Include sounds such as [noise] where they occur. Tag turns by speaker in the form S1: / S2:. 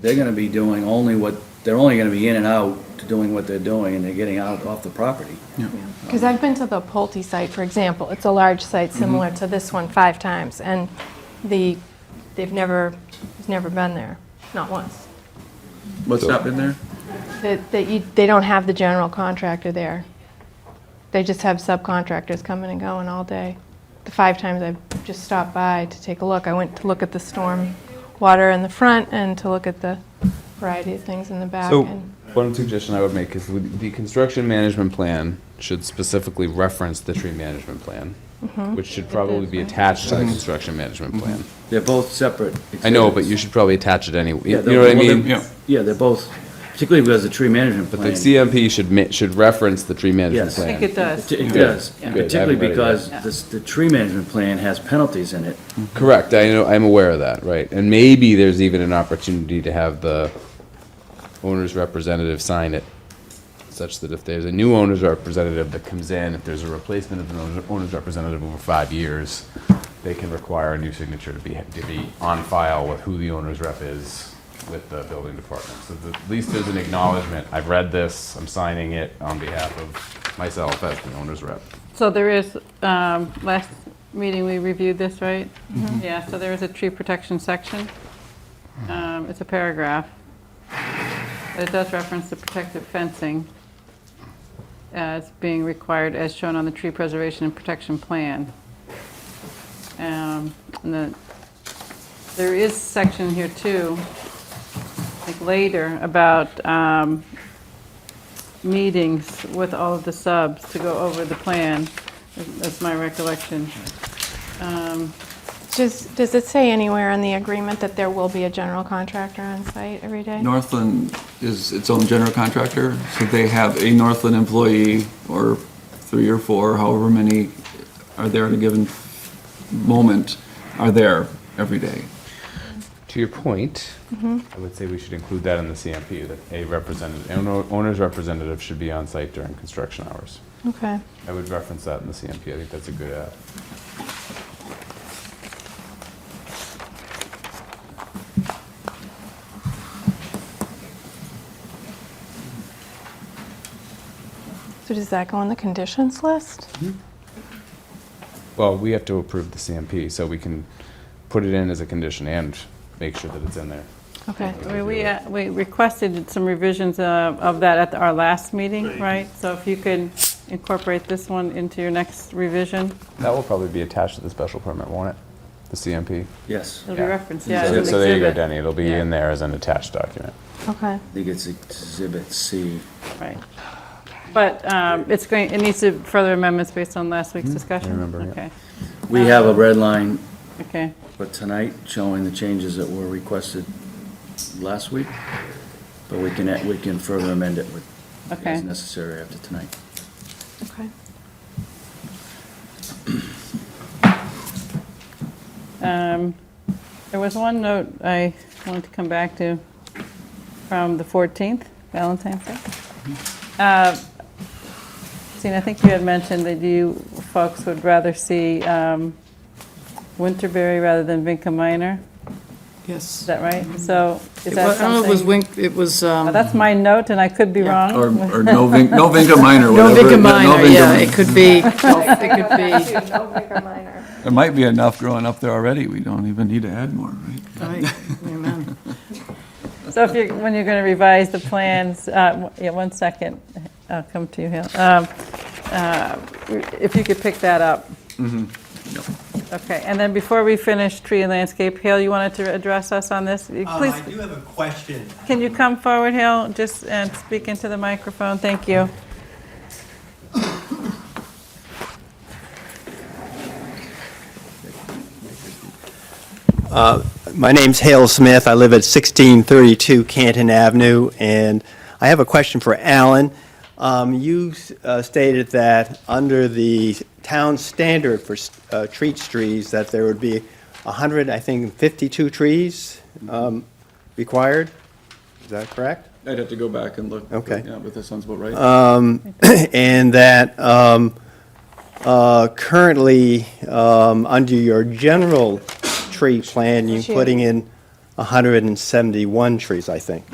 S1: they're gonna be doing only what, they're only gonna be in and out to doing what they're doing, and they're getting out off the property.
S2: Because I've been to the Pulte site, for example, it's a large site similar to this one five times, and the, they've never, it's never been there, not once.
S3: What's not been there?
S2: That, that you, they don't have the general contractor there. They just have subcontractors coming and going all day. The five times I've just stopped by to take a look, I went to look at the storm water in the front and to look at the variety of things in the back.
S3: So,
S2: and-
S3: one suggestion I would make is with- the construction management plan should specifically reference the tree management plan, which should probably be attached to the construction management
S1: Mm-hmm.
S3: plan.
S1: They're both separate.
S3: I know, but
S1: exhibits.
S3: you should probably attach it anyway,
S1: Yeah,
S3: you
S1: they're-
S3: know what I
S1: well, they're-
S3: mean?
S1: Yeah, they're both, particularly because the tree management
S3: But the
S1: plan.
S3: CMP should ma, should reference the tree management
S1: Yes.
S3: plan.
S4: I think it does.
S1: It does,
S3: Good, I
S1: particularly
S3: haven't read it
S1: because
S4: yet.
S1: this, the tree management plan has penalties in it.
S3: Correct, I know, I'm aware of that, right, and maybe there's even an opportunity to have the owner's representative sign it, such that if there's a new owner's representative that comes in, if there's a replacement of an owner's- owner's representative over five years, they can require a new signature to be, to be on file with who the owner's rep is with the building department. So the- at least there's an acknowledgement, I've read this, I'm signing it on behalf of myself as the owner's rep.
S4: So there is, um, last meeting, we reviewed this, right? Yeah, so there is a tree protection section. Um, It's a paragraph. But It does reference the protective fencing as being required as shown on the tree preservation and protection plan. Um, And then, there is section here too, like later, about um, meetings with all of the subs to go over the plan. That's my recollection.
S2: Does, does it say anywhere in the agreement that there will be a general contractor on site every day?
S5: Northland is its own general contractor, so they have a Northland employee or three or four, however many are there at a given moment, are there every day.
S3: To your point, I would say we should include that in the CMP, that a representative, an o- owner's representative should be on site during construction hours.
S2: Okay.
S3: I would reference that in the CMP, I think that's a good add.
S2: So does that go on the conditions list?
S3: Well, we have to approve the CMP, so we can put it in as a condition and make sure that it's in there.
S2: Okay.
S4: I mean, We uh, we requested some revisions uh, of that at our last meeting, right? So if you could incorporate this one into your next revision,
S3: That will probably be attached to the special permit, won't it? The CMP?
S1: Yes,
S4: it'll be
S3: Yeah.
S4: referenced, yeah.
S3: So
S4: as an
S3: so there you go,
S4: exhibit.
S3: Denny, it'll be
S4: Yeah.
S3: in there as an attached document.
S2: Okay.
S1: I think it's exhibit C.
S4: Right. But um, it's going, it needs to further amendments based on last week's discussion?
S3: Hmm? remember, yeah.
S4: Okay,
S1: We have a red line
S4: okay.
S1: But tonight, showing the changes that were requested last week, but we can, we can further amend it with,
S4: Okay.
S1: as necessary after tonight.
S2: Okay.
S4: Um, There was one note I wanted to come back to from the 14th, Valentine's Day. Uh, Christine, I think you had mentioned that you folks would rather see um, Winterberry rather than Vinca Minor. Is
S6: Yes.
S4: that right? So is
S6: It
S4: that
S6: wa- I don't know, if it was
S4: something?
S6: Wink, it was,
S4: Uh,
S6: um,
S4: That's my note, and I could be wrong.
S5: Or, or no Vin, no Vinca Minor,
S6: no
S5: whatever.
S6: Vicar Minor,
S5: Vinca
S6: yeah,
S5: Minor.
S6: it could be, it could be.
S5: There might be enough growing up there already, we don't even need to add more, right?
S6: Right, amen.
S4: So if you're, when you're going to revise the plans, uh, w- yeah, one second, I'll come to you, Hill. Um, uh, If you could pick that up. Okay, and then before we finish tree and landscape, Hill, you wanted to address us on this? You-
S7: Um,
S4: Please,
S7: I do have a question.
S4: can you come forward, Hill, just and speak into the microphone? Thank you.
S7: My name's Hale Smith. I live at 1632 Canton Avenue, and I have a question for Alan. Um, You uh, stated that under the town standard for uh, tree trees, that there would be 100, I think, 52 trees um, required. Is that correct?
S5: I'd have to go back and look.
S7: Okay. Um,
S5: Yeah, but that sounds about right.
S7: [clears throat] and that um, uh, currently, um, under your general tree plan, you're putting in 171 trees, I think.